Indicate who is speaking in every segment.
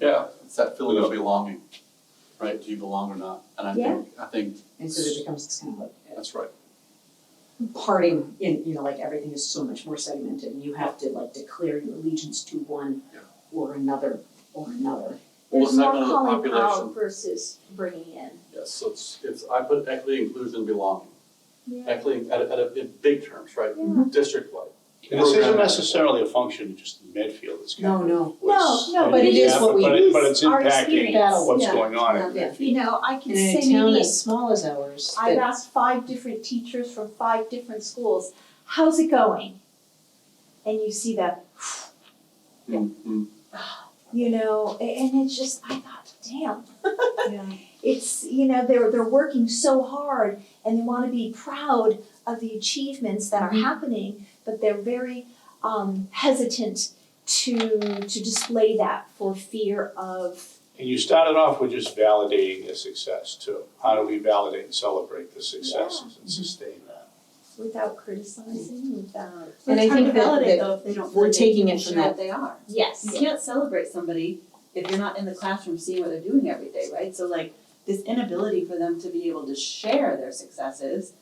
Speaker 1: Yeah, it's that feeling of belonging, right? Do you belong or not? And I think, I think,
Speaker 2: And so it becomes this kind of like
Speaker 1: that's right.
Speaker 2: uh, parting in, you know, like everything is so much more segmented and you have to like declare your allegiance to one
Speaker 1: Yeah.
Speaker 2: or another or another.
Speaker 1: Well,
Speaker 3: There's more
Speaker 1: segment of the
Speaker 3: calling out
Speaker 1: population,
Speaker 3: versus bringing in.
Speaker 1: yes, so it's, it's, I put equity, inclusion, belonging.
Speaker 3: Yeah.
Speaker 1: Equity, at, a- at, a- in big terms, right?
Speaker 3: Yeah.
Speaker 1: District-wide.
Speaker 4: And this isn't
Speaker 1: Program.
Speaker 4: necessarily a function of just Medfield, it's kind
Speaker 2: No,
Speaker 4: of.
Speaker 2: no.
Speaker 4: what's-
Speaker 3: No, no, but it is what we-
Speaker 4: But it, but it's
Speaker 3: our
Speaker 4: impacting
Speaker 3: experience.
Speaker 4: what's
Speaker 3: Yeah.
Speaker 4: going on in
Speaker 2: Yeah.
Speaker 3: You know, I can
Speaker 2: And in
Speaker 3: say
Speaker 2: a town
Speaker 3: maybe,
Speaker 2: as small as ours,
Speaker 3: I've
Speaker 2: that
Speaker 3: asked five different teachers from five different schools, how's it going? And you see that, Yeah.
Speaker 1: Mhm.
Speaker 3: you know, a- and it's just, I thought, damn, it's you know they're they're working so hard and they want to be proud of the achievements that are
Speaker 2: Mhm.
Speaker 3: happening but they're very um, hesitant to to display that for fear of
Speaker 4: And you started off with just validating the success too. How do we validate and celebrate the successes and sustain that?
Speaker 3: without criticizing without
Speaker 2: And I
Speaker 5: We're trying
Speaker 2: think
Speaker 5: to
Speaker 2: that-
Speaker 5: validate
Speaker 2: that
Speaker 5: though if they don't
Speaker 2: we're
Speaker 5: feel they
Speaker 2: taking
Speaker 5: can
Speaker 2: it from
Speaker 5: share
Speaker 2: that-
Speaker 5: what they are.
Speaker 3: yes
Speaker 5: You can't celebrate somebody if you're not in the classroom seeing what they're doing every day, right? So like this inability for them to be able to share their successes,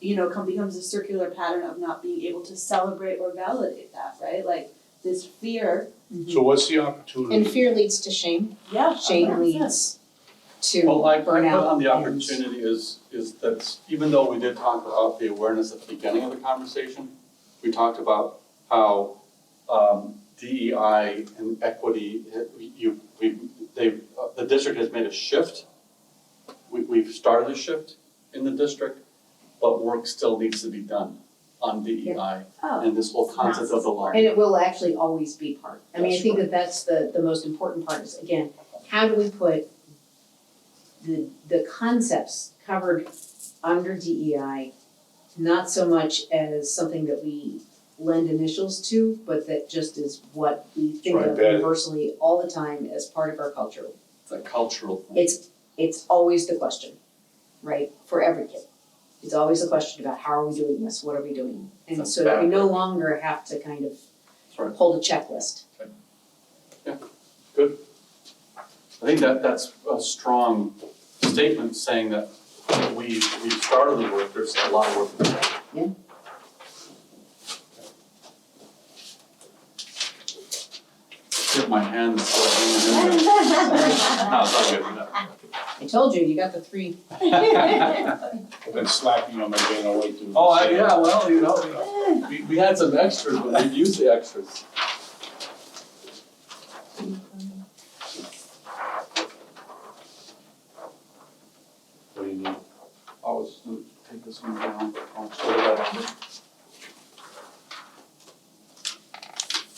Speaker 5: you know, come becomes a circular pattern of not being able to celebrate or validate that, right? Like this fear,
Speaker 4: So what's the
Speaker 2: and
Speaker 4: opportunity?
Speaker 2: fear leads to shame,
Speaker 5: yeah,
Speaker 2: shame
Speaker 5: 100%.
Speaker 2: leads to burnout.
Speaker 1: Well, I, I put on the
Speaker 2: and-
Speaker 1: opportunity is, is that even though we did talk about the awareness at the beginning of the conversation, we talked about how, um, DEI and equity, eh, we- you, we, they, uh, the district has made a shift. We, we've started a shift in the district, but work still needs to be done on DEI
Speaker 5: Oh,
Speaker 1: and this whole concept of the line.
Speaker 2: And it will actually always be part. I mean, I
Speaker 1: That's
Speaker 2: think that that's the, the most important part is, again, how do we put the, the concepts covered under DEI, not so much as something that we lend initials to, but that just is what we think
Speaker 4: Right,
Speaker 2: of
Speaker 4: that-
Speaker 2: universally all the time as part of our culture.
Speaker 1: It's a cultural thing.
Speaker 2: It's, it's always the question, right, for every kid. It's always a question about how are we doing this, what are we doing? And
Speaker 1: That's
Speaker 2: so that we no longer have to kind of
Speaker 1: That's right.
Speaker 2: hold a checklist.
Speaker 1: I think that that's a strong statement saying that we, we started the work, there's a lot of work. to do.
Speaker 2: Yeah.
Speaker 1: Get my hands still hanging in there. No, it's all good, no.
Speaker 2: I told you, you got the three.
Speaker 3: Oh.
Speaker 4: I've been slacking on my gain of weight too.
Speaker 1: Oh, I, yeah, well, you know, we, we had some extras, but we used the extras.
Speaker 4: What do you need?
Speaker 1: I was gonna take this one down.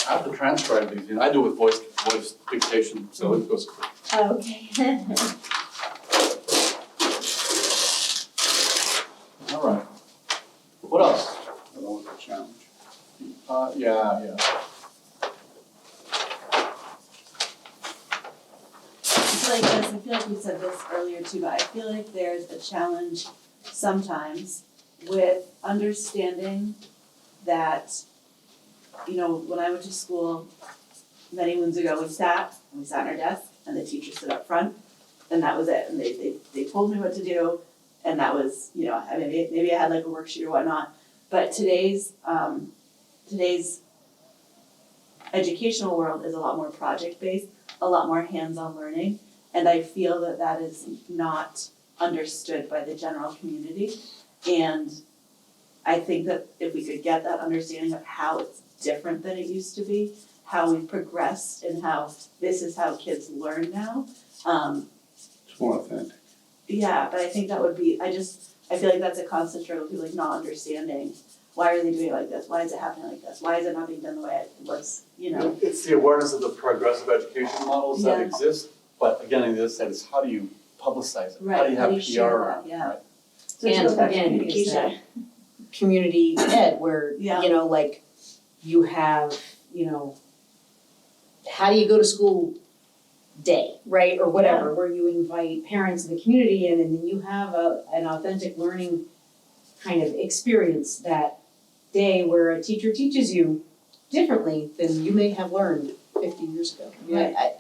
Speaker 1: I have to transcribe these, you know, I do with voice, voice dictation, so it goes quick.
Speaker 3: okay
Speaker 1: All right. What else?
Speaker 4: I don't want to challenge.
Speaker 1: Uh, yeah, yeah.
Speaker 5: I feel like this, I feel like we said this earlier too, but I feel like there's a challenge sometimes with understanding that, you know, when I went to school many moons ago, we sat, and we sat on our desk, and the teacher stood up front, and that was it, and they, they, they told me what to do, and that was, you know, I mean, maybe, maybe I had like a worksheet or whatnot, but today's, um, today's educational world is a lot more project-based, a lot more hands-on learning and i feel that that is not understood by the general community and i think that if we could get that understanding of how it's different than it used to be how we've progressed and how this is how kids learn now um,
Speaker 4: It's more authentic.
Speaker 5: yeah but i think that would be i just i feel like that's a constant struggle with people like not understanding why are they doing it like this why is it happening like this why is it not being done the way it was you know
Speaker 1: It's the awareness of the progressive education models that
Speaker 5: Yeah.
Speaker 1: exist, but again, on the other side is how do you publicize it? How do
Speaker 5: Right,
Speaker 1: you
Speaker 5: how
Speaker 1: have
Speaker 5: do you
Speaker 1: PR
Speaker 5: share
Speaker 1: around
Speaker 5: that?
Speaker 1: it,
Speaker 5: Yeah.
Speaker 1: right?
Speaker 5: so it's
Speaker 2: And
Speaker 5: about
Speaker 2: again, is
Speaker 5: communication
Speaker 2: that- community ed where,
Speaker 5: Yeah.
Speaker 2: you know, like you have, you know, how do you go to school day, right, or whatever, where you invite parents in the community in and then you have a, an authentic learning kind of experience that day where a teacher teaches you differently than you may have learned fifty years ago. Yeah, I-